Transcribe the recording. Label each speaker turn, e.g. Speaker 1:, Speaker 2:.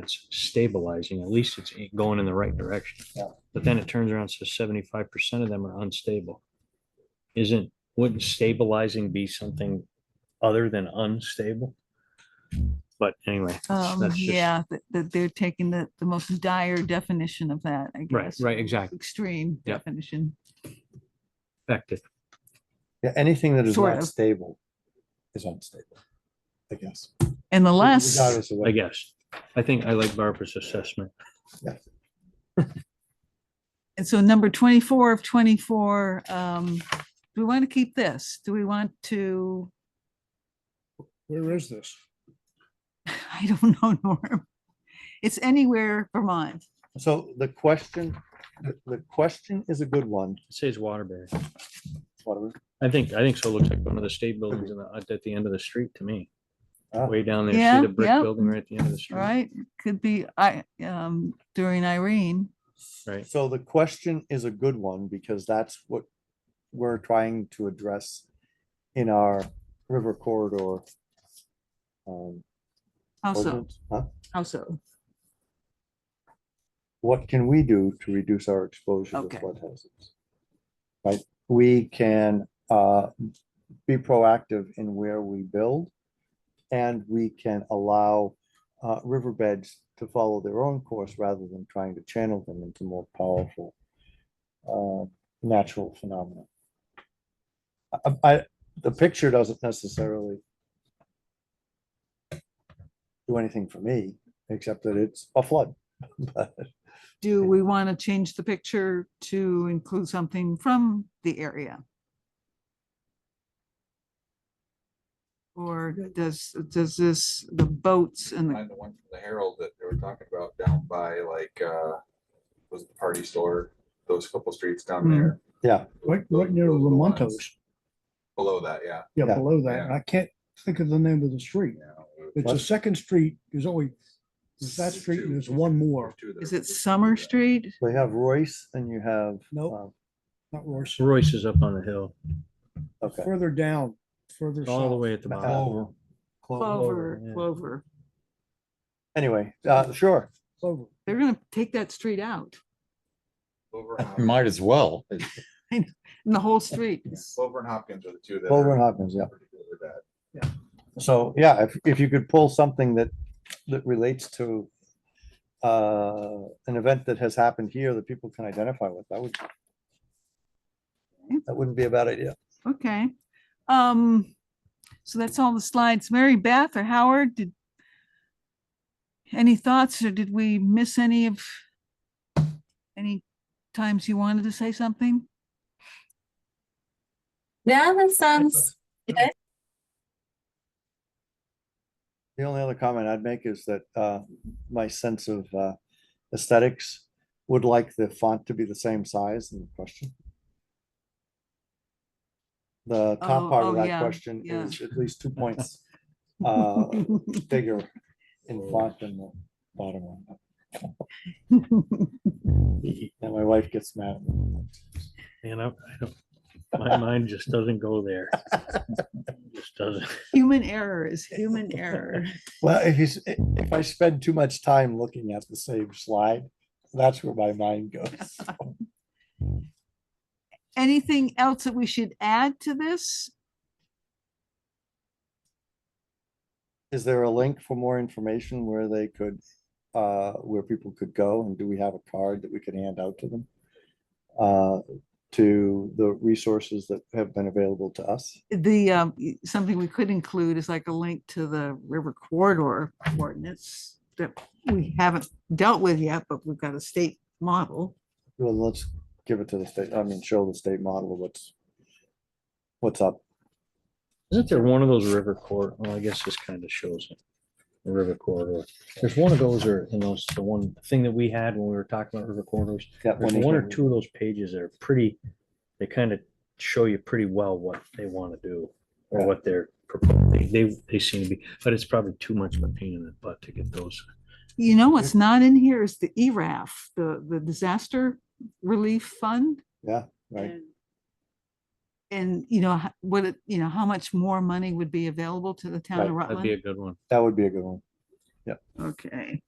Speaker 1: that's stabilizing, at least it's going in the right direction.
Speaker 2: Yeah.
Speaker 1: But then it turns around, and says seventy-five percent of them are unstable. Isn't, wouldn't stabilizing be something other than unstable? But anyway, that's
Speaker 3: Um,
Speaker 1: that's just,
Speaker 3: yeah, that, that they're taking the, the most dire definition of that, I
Speaker 1: right,
Speaker 3: guess.
Speaker 1: right, exactly,
Speaker 3: Extreme
Speaker 1: Yep.
Speaker 3: definition.
Speaker 1: effective.
Speaker 2: Yeah, anything that is
Speaker 3: Sort
Speaker 2: not
Speaker 3: of.
Speaker 2: stable is unstable, I guess.
Speaker 3: And the last,
Speaker 2: Regardless of what-
Speaker 1: I guess. I think I like Barbara's assessment.
Speaker 3: and so number twenty-four of twenty-four, um, do we want to keep this? Do we want to,
Speaker 4: Where is this?
Speaker 3: I don't know, Norm. It's anywhere Vermont.
Speaker 2: So the question, the- the question is a good one.
Speaker 1: It says Waterbury.
Speaker 2: Whatever.
Speaker 1: I think, I think so. It Looks like one of the state buildings in the, at the end of the street to me.
Speaker 2: Ah.
Speaker 1: Way down there,
Speaker 3: Yeah,
Speaker 1: see the brick
Speaker 3: yeah.
Speaker 1: building right at the end of the street.
Speaker 3: Right, could be, I, um, during Irene,
Speaker 1: Right.
Speaker 2: So the question is a good one because that's what we're trying to address in our river corridor. um,
Speaker 3: how so,
Speaker 2: ordinance. Huh?
Speaker 3: how so?
Speaker 2: What can we do to reduce our exposure to
Speaker 3: Okay.
Speaker 2: flood hazards? Right, we can uh, be proactive in where we build. And we can allow uh, riverbeds to follow their own course rather than trying to channel them into more powerful uh, natural phenomena. I- I, the picture doesn't necessarily do anything for me, except that it's a flood. But
Speaker 3: Do we want to change the picture to include something from the area? Or does, does this, the boats and
Speaker 4: Hmm.
Speaker 3: the,
Speaker 5: Find the one from the Herald that they were talking about down by like, uh, was the party store, those couple streets down
Speaker 3: Hmm.
Speaker 5: there.
Speaker 2: Yeah.
Speaker 4: Right,
Speaker 5: Those-
Speaker 4: right near
Speaker 5: those are the ones
Speaker 4: Lamontos.
Speaker 5: Below that, yeah.
Speaker 4: Yeah,
Speaker 2: Yeah.
Speaker 4: below that. I can't think of the name of the street. It's
Speaker 2: What?
Speaker 4: the second street. There's only, there's that street and there's one more.
Speaker 3: is it Summer Street?
Speaker 2: They have Royce and you have. um,
Speaker 4: Nope. Not Royce.
Speaker 1: Royce is up on the hill,
Speaker 2: uh, Okay.
Speaker 4: Further down, further
Speaker 1: all the
Speaker 4: south.
Speaker 1: way at the
Speaker 2: Uh,
Speaker 1: bottom.
Speaker 2: Clover.
Speaker 3: Clover,
Speaker 1: yeah.
Speaker 3: Clover.
Speaker 2: Anyway, uh, sure.
Speaker 4: Clover.
Speaker 3: They're going to take that street out
Speaker 5: Clover and Hopkins-
Speaker 6: Might as well.
Speaker 3: and the whole street. is-
Speaker 5: Clover and Hopkins are the two that.
Speaker 2: Clover
Speaker 5: are
Speaker 2: and Hopkins, yeah.
Speaker 5: particularly bad.
Speaker 2: So, yeah, if, if you could pull something that, that relates to uh, an event that has happened here that people can identify with, that would that wouldn't be a bad idea.
Speaker 3: Okay. Um, so that's all the slides. Mary Beth or Howard, did any thoughts or did we miss any of any times you wanted to say something?
Speaker 7: Yeah, that sounds
Speaker 2: The only other comment I'd make is that uh, my sense of uh, aesthetics would like the font to be the same size in the question. The
Speaker 3: Oh,
Speaker 2: top part
Speaker 3: oh,
Speaker 2: of
Speaker 3: yeah,
Speaker 2: that question
Speaker 3: yeah.
Speaker 2: is at least two points uh, bigger in font than the bottom one. And my wife gets mad. at me.
Speaker 1: You know, I don't, my mind just doesn't go there. Just doesn't.
Speaker 3: Human error is human error.
Speaker 2: Well, if you, s- if I spend too much time looking at the same slide, that's where my mind goes.
Speaker 3: Anything else that we should add to this?
Speaker 2: Is there a link for more information where they could, uh, where people could go? And do we have a card that we could hand out to them? Uh, to the resources that have been available to us?
Speaker 3: The, um, y- something we could include is like a link to the river corridor ordinance that we haven't dealt with yet, but we've got a state model.
Speaker 2: Well, let's give it to the state, I mean, show the state model of what's, what's up.
Speaker 1: Isn't there one of those river court? Well, I guess this kind of shows it. The river corridor. There's one of those or in those, the one thing that we had when we were talking about river corridors.
Speaker 2: Got
Speaker 1: There's
Speaker 2: of
Speaker 1: one or
Speaker 2: those.
Speaker 1: two of those pages that are pretty, they kind of show you pretty well what they want to do or
Speaker 2: Yeah.
Speaker 1: what they're proposing. They, they seem to be, but it's probably too much of a pain in the butt to get those.
Speaker 3: You know what's not in here is the E ERAF, the, the disaster relief fund.
Speaker 2: Yeah, right.
Speaker 3: And- And, you know, ho- what, it- you know, how much more money would be available to the town of
Speaker 2: Right,
Speaker 1: That'd be a
Speaker 3: Rutland?
Speaker 1: good one.
Speaker 2: That would be a good one.
Speaker 3: Okay,